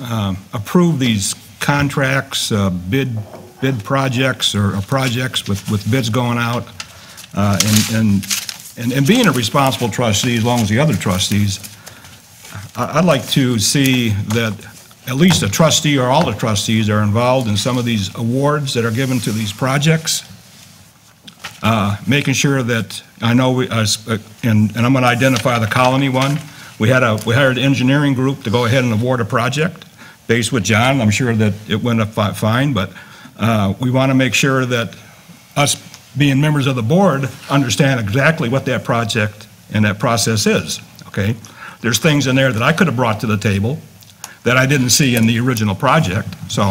uh, approve these contracts, uh, bid, bid projects or or projects with, with bids going out, uh, and- and, and, and being a responsible trustee, as long as the other trustees, I- I'd like to see that at least a trustee or all the trustees are involved in some of these awards that are given to these projects making sure that, I know, we- I s- uh, and and I'm going to identify the colony one. We had a, we hired an engineering group to go ahead and award a project based with John. I'm sure that it went up fi- fine, but uh, we want to make sure that us being members of the board understand exactly what that project and that process is, okay? There's things in there that I could have brought to the table that I didn't see in the original project. So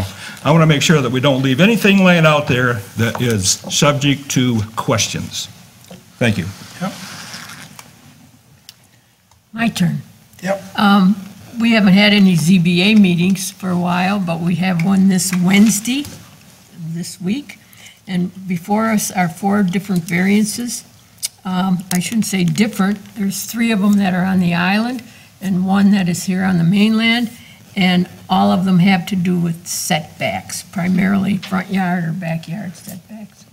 I want to make sure that we don't leave anything laying out there that is subject to questions. Thank you. My turn. Um, Yep. We haven't had any ZBA meetings for a while, but we have one this Wednesday, this week. And before us are four different variances. Um, I shouldn't say different, there's three of them that are on the island and one that is here on the mainland. And all of them have to do with setbacks, primarily front yard or backyard setbacks.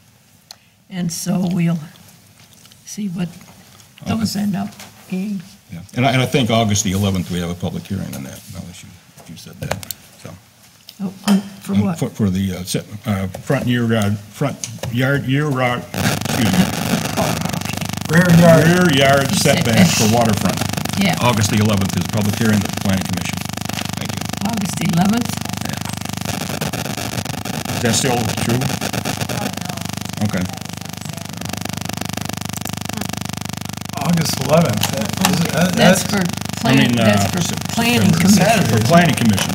And so we'll see what those end up being. Yeah. And I, and I think August the 11th, we have a public hearing on that, now that you, you said that, so. Oh, um, For what? For, for the, uh, set- uh, front year, uh, front yard, year, uh, excuse me, Rear yard, rear yard setbacks for waterfront. Yeah. August the 11th is a public hearing at the planning commission. Thank you. August 11th? Is that still true? Okay. August 11th. That- is it- that- That's for I planning, mean, uh, that's for planning September. commission. Saturday. For planning commission.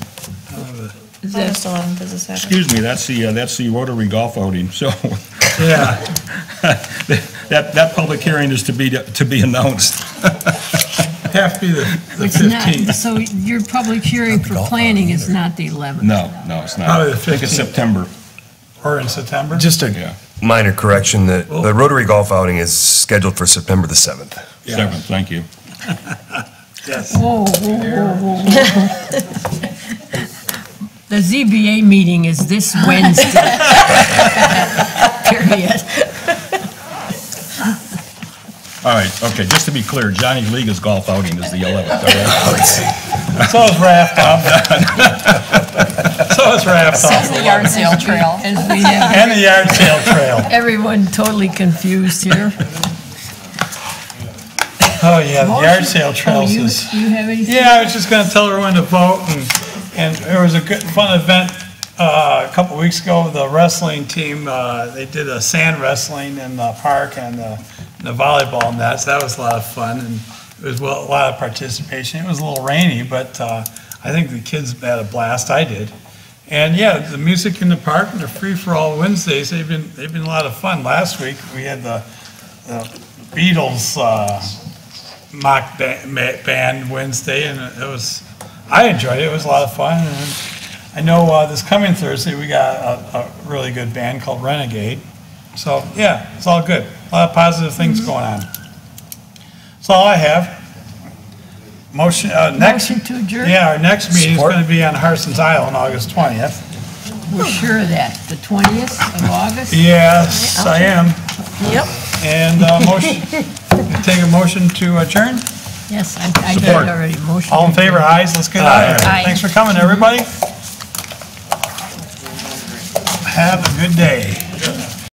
Is August that- 11th is a Saturday. Excuse me, that's the, uh, that's the Rotary Golf outing, so Yeah, that, that public hearing is to be, to be announced. have to be the the It's not, 15th. so your public hearing for planning is not the 11th? No, no, it's not. Probably the I think it's 15th. September, Or in September? Just Yeah. a minor correction, that the Rotary Golf outing is scheduled for September the 7th. 7th, thank you. Yes. Whoa, whoa, whoa, whoa, whoa. The ZBA meeting is this Wednesday. Period. All right, okay, just to be clear, Johnny League's golf outing is the 11th, all right? So is raft off. So is raft off. the yard sale trail. As we have And the yard sale trail. everyone totally confused here. Oh, yeah, the yard sale Oh, trails you, is. you have anything? Yeah, I was just gonna tell everyone to vote, and, and there was a good, fun event, uh, a couple weeks ago, the wrestling team, uh, they did a sand wrestling in the park and the, the volleyball nets, that was a lot of fun, and it was well- a lot of participation, it was a little rainy, but, uh, I think the kids had a blast, I did. And yeah, the music in the park and the free-for-all Wednesdays, they've been, they've been a lot of fun, last week, we had the, the Beatles, uh, mock ba- ma- band Wednesday, and it was, I enjoyed it, it was a lot of fun. And I know uh, this coming Thursday, we got a, a really good band called Renegade. So, yeah, it's all good, a lot of positive things going on. That's all I have. Motion, uh, next, Motion to adjourn? yeah, our next meeting is Support. gonna be on Harson's Island, August 20th. We're sure of that, the 20th of August? Yes, I am, Yep. and uh, motion, take a motion to adjourn. Yes, I I did Support. already motion. All in favor, ayes, let's get out of Aye. here. Thanks for coming, everybody. Have a good day.